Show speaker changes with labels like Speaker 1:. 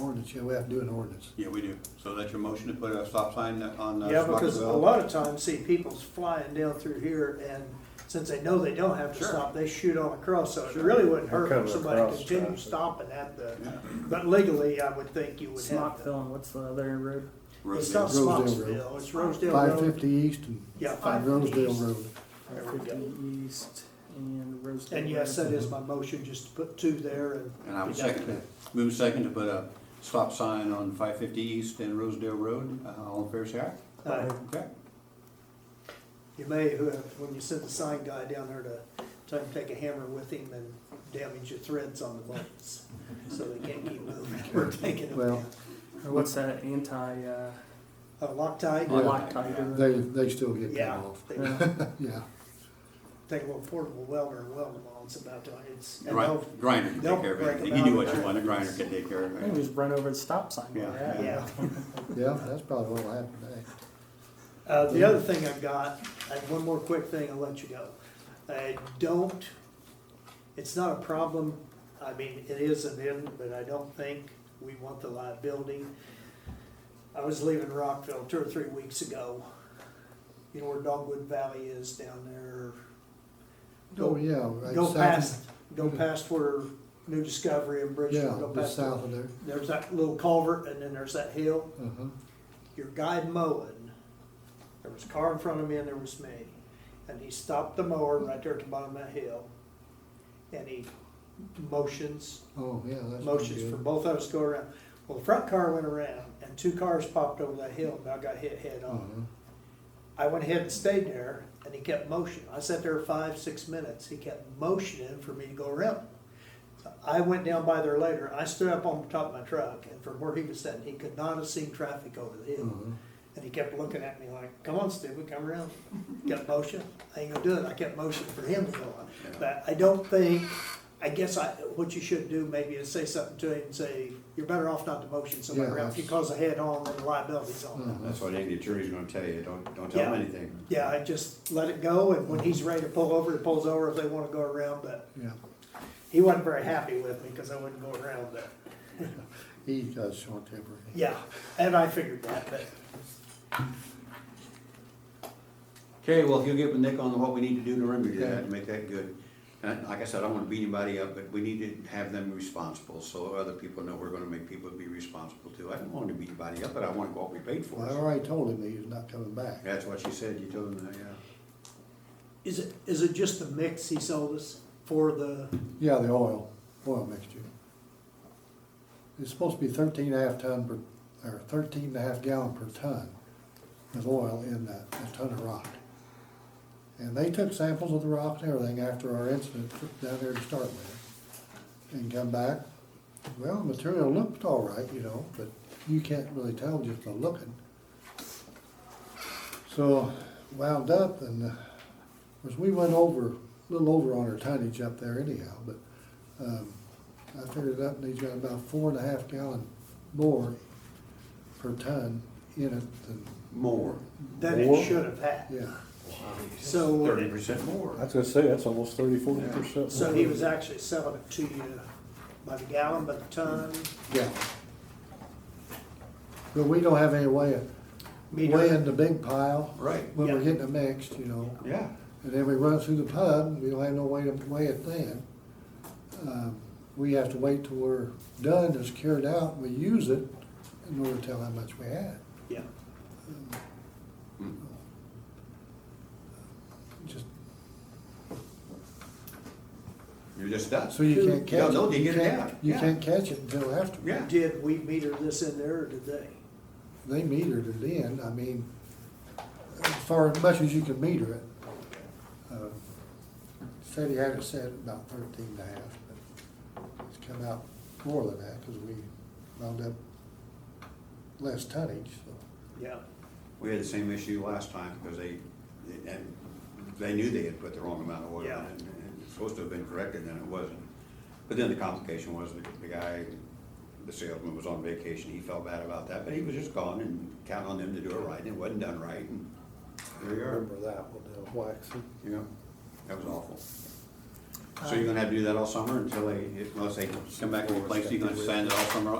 Speaker 1: ordinance, yeah, we have to do an ordinance.
Speaker 2: Yeah, we do. So that's your motion to put a stop sign on uh,
Speaker 3: Yeah, because a
Speaker 2: Soccerville?
Speaker 3: lot of times, see, people's flying down through here, and since they know they don't have to
Speaker 2: Sure.
Speaker 3: stop, they shoot on across, so it
Speaker 2: Sure.
Speaker 3: really wouldn't hurt
Speaker 4: Come
Speaker 3: if somebody
Speaker 4: across
Speaker 3: continued
Speaker 4: traffic.
Speaker 3: stopping at the,
Speaker 2: Yeah.
Speaker 3: but legally, I would think you would have to.
Speaker 5: Smockville and what's the other road?
Speaker 3: It's
Speaker 2: Rosedale.
Speaker 3: not
Speaker 1: Rosedale Road.
Speaker 3: Smocksville, it's Rosedale
Speaker 1: Five
Speaker 3: Road,
Speaker 1: fifty east and
Speaker 3: Yeah,
Speaker 1: five Rosedale Road.
Speaker 3: There we go.
Speaker 5: 550 East and Rosedale.
Speaker 3: and yes,
Speaker 5: Road.
Speaker 3: that is my motion, just to put two there and.
Speaker 2: And I would
Speaker 3: deduct
Speaker 2: second
Speaker 3: that.
Speaker 2: that. Move second to put a stop sign on five fifty east and Rosedale Road. Uh, All in fair say aye?
Speaker 3: Uh,
Speaker 2: Okay.
Speaker 3: You may, who- when you send the sign guy down there to, tell him to take a hammer with him and damage your threads on the bolts, so they can't keep moving, we're taking them
Speaker 1: Well,
Speaker 3: down.
Speaker 5: Or what's that anti, uh,
Speaker 3: Uh,
Speaker 1: Yeah.
Speaker 3: Loctite?
Speaker 5: Loctite?
Speaker 1: They, they still get cut
Speaker 3: Yeah,
Speaker 1: off.
Speaker 3: they
Speaker 5: Yeah.
Speaker 1: Yeah,
Speaker 3: take a little portable welder and weld them on, it's about done, it's, and
Speaker 2: Right,
Speaker 3: they'll,
Speaker 2: grinder can take
Speaker 3: they'll
Speaker 2: care of
Speaker 3: break
Speaker 2: it. You
Speaker 3: them
Speaker 2: can do
Speaker 3: out
Speaker 2: what you
Speaker 3: there.
Speaker 2: want, a grinder can take care of
Speaker 5: You can
Speaker 2: it.
Speaker 5: just run over the stop sign.
Speaker 2: Yeah,
Speaker 5: Yeah.
Speaker 3: yeah.
Speaker 1: yeah, that's probably what'll happen today.
Speaker 3: Uh, the other thing I've got, I have one more quick thing, I'll let you go. I don't, it's not a problem, I mean, it is an end, but I don't think we want the liability. I was leaving Rockville two or three weeks ago, you know where Dogwood Valley is down there?
Speaker 1: Oh,
Speaker 3: Go-
Speaker 1: yeah. right
Speaker 3: Go
Speaker 1: south- Mm-hmm.
Speaker 3: past, go past where New Discovery and Bridgeville,
Speaker 1: Yeah,
Speaker 3: go
Speaker 1: just
Speaker 3: past the
Speaker 1: south of there.
Speaker 3: there's that little culvert and then there's that hill.
Speaker 1: Uh-huh.
Speaker 3: Your guy mowing, there was a car in front of me and there was me. And he stopped the mower right there at the bottom of that hill. And he motions,
Speaker 1: Oh, yeah, that's pretty
Speaker 3: motions for
Speaker 1: good.
Speaker 3: both of us to go around. Well, the front car went around and two cars popped over that hill and I got hit head on.
Speaker 1: Uh-huh.
Speaker 3: I went ahead and stayed there, and he kept motioning. I sat there five, six minutes. He kept motioning for me to go around. So I went down by there later. I stood up on the top of my truck, and from where he was sitting, he could not have seen traffic over the hill.
Speaker 1: Uh-huh.
Speaker 3: And he kept looking at me like, "Come on, stupid, come around." Kept motion. I ain't gonna do it. I kept motioning for him to go on. But I don't think. I guess I, what you should do maybe is say something to him and say, "You're better off not to motion somebody
Speaker 1: Yeah,
Speaker 3: around. If you
Speaker 1: that's-
Speaker 3: cause a head-on, then the liability's on."
Speaker 1: Uh-huh.
Speaker 6: That's what any attorney's gonna tell you, don't, don't tell
Speaker 3: Yeah.
Speaker 6: them anything.
Speaker 3: Yeah, I just let it go, and when he's ready to pull over, he pulls over if they wanna go around, but
Speaker 1: Yeah,
Speaker 3: he wasn't very happy with me, cause I wouldn't go around, but,
Speaker 1: he does short temper.
Speaker 3: yeah, and I figured that, but,
Speaker 2: Okay, well, if you'll get with Nick on what we need to do to remedy
Speaker 1: Okay.
Speaker 2: that, to make that good. And like I said, I don't wanna beat anybody up, but we need to have them responsible, so other people know we're gonna make people be responsible too. I don't want to beat anybody up, but I want what we paid for.
Speaker 1: Well, I already told him he was not coming back.
Speaker 2: That's what she said, you told them that, yeah.
Speaker 3: is it, is it just the mix he sold us for the,
Speaker 1: Yeah, the oil, oil mixture. It's supposed to be thirteen and a half ton per, or thirteen and a half gallon per ton of oil in that, a ton of rock. And they took samples of the rock and everything after our incident down there to start with. And come back, well, the material looked all right, you know, but you can't really tell just by looking. So wound up and, uh, of course, we went over, a little over on our tonnage up there anyhow, but, um, I figured it up and he's got about four and a half gallon more per ton in it than,
Speaker 2: More.
Speaker 3: that it
Speaker 4: More?
Speaker 3: should have had?
Speaker 1: yeah.
Speaker 3: So,
Speaker 2: Thirty percent more.
Speaker 4: I was gonna say, that's almost thirty, forty percent.
Speaker 3: so he was actually selling it to you by the gallon, by the ton,
Speaker 1: Yeah. But we don't have any way of weighing
Speaker 3: meter?
Speaker 1: the big pile
Speaker 2: Right,
Speaker 1: when we're
Speaker 3: Yeah.
Speaker 1: getting it mixed, you know.
Speaker 2: yeah.
Speaker 1: And then we run it through the pub, we don't have no way to weigh it then. Um, We have to wait till we're done, it's carried out, we use it in order to tell how much we had.
Speaker 3: Yeah,
Speaker 2: Hmm.
Speaker 1: Just,
Speaker 2: You're just done.
Speaker 1: so you can't
Speaker 2: Yeah,
Speaker 1: catch
Speaker 2: no,
Speaker 1: it.
Speaker 2: you get it
Speaker 1: can't-
Speaker 2: out,
Speaker 1: You
Speaker 2: yeah.
Speaker 1: can't catch it until after.
Speaker 2: Yeah.
Speaker 3: did we meter this in there, or did they?
Speaker 1: They metered it in, I mean, as far as much as you can meter it. Um, Said he had it set at about thirteen and a half, but it's come out more than that, cause we wound up less tonnage, so.
Speaker 3: Yeah,
Speaker 2: We had the same issue last time because they, and they knew they had put the wrong amount of oil in it.
Speaker 3: Yeah.
Speaker 2: and It's supposed to have been corrected, and it wasn't. But then the complication was the, the guy, the salesman was on vacation, he felt bad about that, but he was just gone and counting on them to do it right, and it wasn't done right, and there you are,
Speaker 4: Remember that one, waxing.
Speaker 2: you know? That was awful. So you're gonna have to do that all summer until they, unless they come back and replace, you, you're gonna sand it all summer